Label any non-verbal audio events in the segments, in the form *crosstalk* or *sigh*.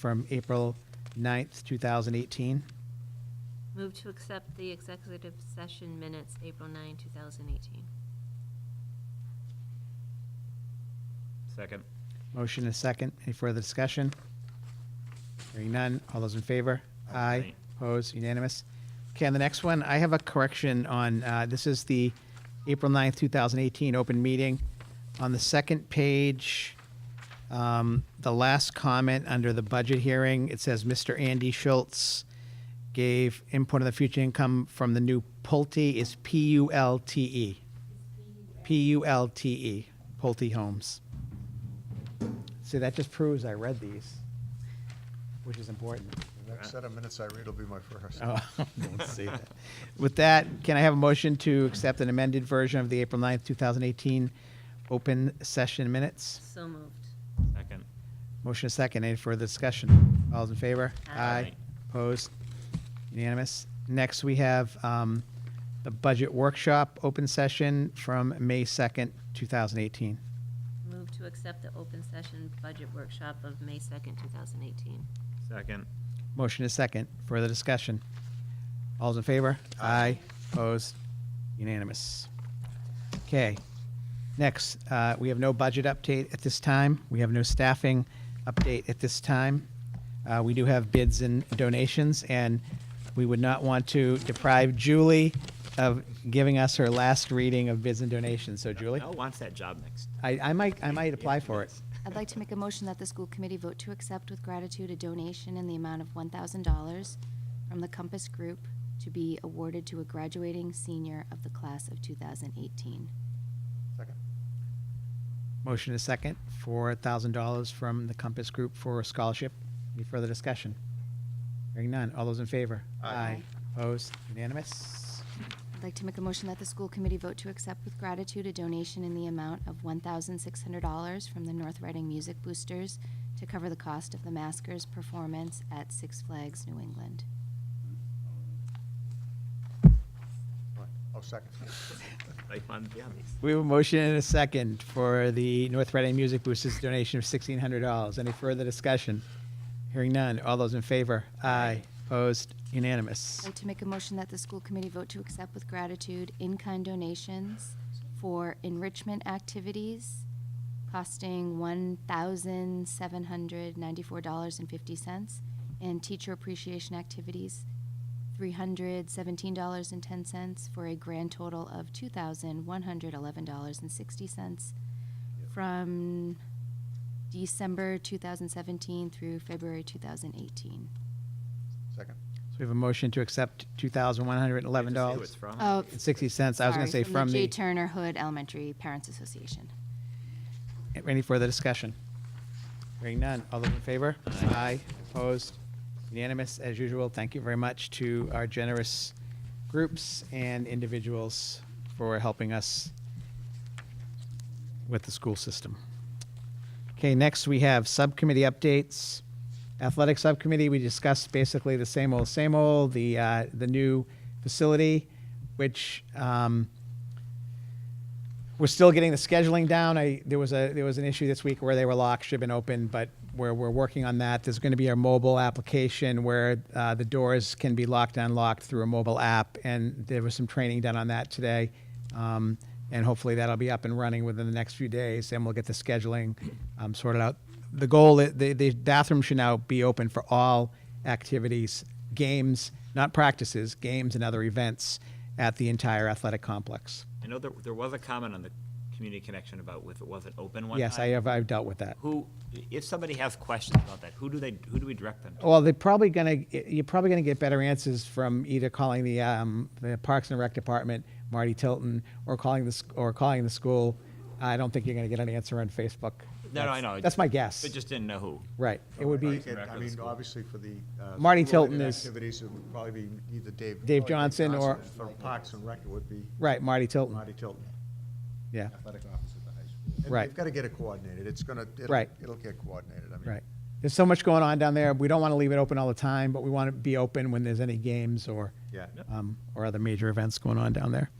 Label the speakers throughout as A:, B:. A: from April 9th, 2018.
B: Move to accept the executive session minutes, April 9, 2018.
C: Second.
A: Motion is second. Any further discussion? Hearing none. All those in favor? Aye.
C: Aye.
A: Opposed? Unanimous. Okay, on the next one, I have a correction on, uh, this is the April 9th, 2018 open meeting. On the second page, um, the last comment under the budget hearing, it says Mr. Andy Schultz gave input on the future income from the new Pulte is P-U-L-T-E. P-U-L-T-E, E, Pulte Homes. See, that just proves I read these, which is important.
D: The next set of minutes I read will be my first.
A: Oh, *laughs* don't say that. With that, can I have a motion to accept an amended version of the April 9th, 2018 open session minutes?
B: So moved.
C: Second.
A: Motion is second. Any further discussion? All those in favor?
B: Aye.
A: Opposed? Unanimous. Next, we have um, the budget workshop open session from May 2nd, 2018.
B: Move to accept the open session budget workshop of May 2nd, 2018.
C: Second.
A: Motion is second. Further discussion? All's in favor? Aye. Opposed? Unanimous. Okay. Next, uh, we have no budget update at this time. We have no staffing update at this time. Uh, We do have bids and donations, and we would not want to deprive Julie of giving us her last reading of bids and donations. So Julie,
C: Mel wants that job next.
A: I I might, I might apply for it.
E: I'd like to make a motion that the school committee vote to accept with gratitude a donation in the amount of $1,000 from the Compass Group to be awarded to a graduating senior of the class of 2018.
D: Second.
A: Motion is second for $1,000 from the Compass Group for a scholarship. Any further discussion? Hearing none. All those in favor?
D: Aye.
A: Opposed? Unanimous?
E: I'd like to make a motion that the school committee vote to accept with gratitude a donation in the amount of $1,600 from the North Reading Music Boosters to cover the cost of the Maskers' performance at Six Flags New England.
D: Right. Oh, second. *laughs*
C: Like on the job next.
A: We have a motion and a second for the North Reading Music Boosters donation of $1,600. Any further discussion? Hearing none. All those in favor? Aye. Opposed? Unanimous?
E: I'd like to make a motion that the school committee vote to accept with gratitude in-kind donations for enrichment activities costing one thousand seven hundred ninety-four dollars and fifty cents, and teacher appreciation activities, three hundred seventeen dollars and ten cents, for a grand total of two thousand one hundred eleven dollars and sixty cents from December two thousand seventeen through February two thousand eighteen.
D: Second.
A: So we have a motion to accept
C: You have to say who it's
A: $2,111.
C: from.
E: Oh,
A: and 60 cents. I was going to say
E: Sorry,
A: from
E: J.
A: the,
E: Turner Hood Elementary Parents Association.
A: any further discussion? Hearing none. All those in favor? Aye. Opposed? Unanimous, as usual. Thank you very much to our generous groups and individuals for helping us with the school system. Okay, next we have subcommittee updates. Athletic Subcommittee, we discussed basically the same old, same old, the, uh, the new facility, which, um, we're still getting the scheduling down. I, there was a, there was an issue this week where they were locked, should have been open, but we're, we're working on that. There's going to be a mobile application where uh, the doors can be locked and unlocked through a mobile app, and there was some training done on that today. Um, and hopefully that'll be up and running within the next few days, and we'll get the scheduling um, sorted out. The goal, i- the, the bathroom should now be open for all activities, games, not practices, games and other events at the entire athletic complex.
C: I know there, there was a comment on the community connection about if it wasn't open one time.
A: Yes, I have, I've dealt with that.
C: Who, if somebody has questions about that, who do they, who do we direct them to?
A: Well, they're probably gonna, you're probably gonna get better answers from either calling the, um, the Parks and Rec Department, Marty Tilton, or calling the, sc- or calling the school. I don't think you're gonna get an answer on Facebook.
C: No, no, I know.
A: That's my guess.
C: They just didn't know who.
A: Right, it would be
D: I I mean, obviously for the. uh,
A: Marty
D: school-related
A: Tilton is-
D: Activities, it would probably be either Dave.
A: Dave
D: probably
A: Johnson or-
D: For Parks and Rec, it would be
A: right, Marty Tilton.
D: Marty Tilton,
A: Yeah,
D: athletic officer at the high school. And
A: Right.
D: They've got to get it coordinated. It's going to.
A: Right.
D: It'll get coordinated. I mean.
A: right. There's so much going on down there. We don't wanna leave it open all the time, but we wanna be open when there's any games or.
D: Yeah.
A: um, or other major events going on down there.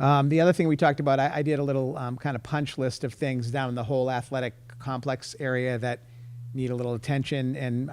A: Um, the other thing we talked about, I, I did a little um, kind of punch list of things down in the whole athletic complex area that need a little attention, and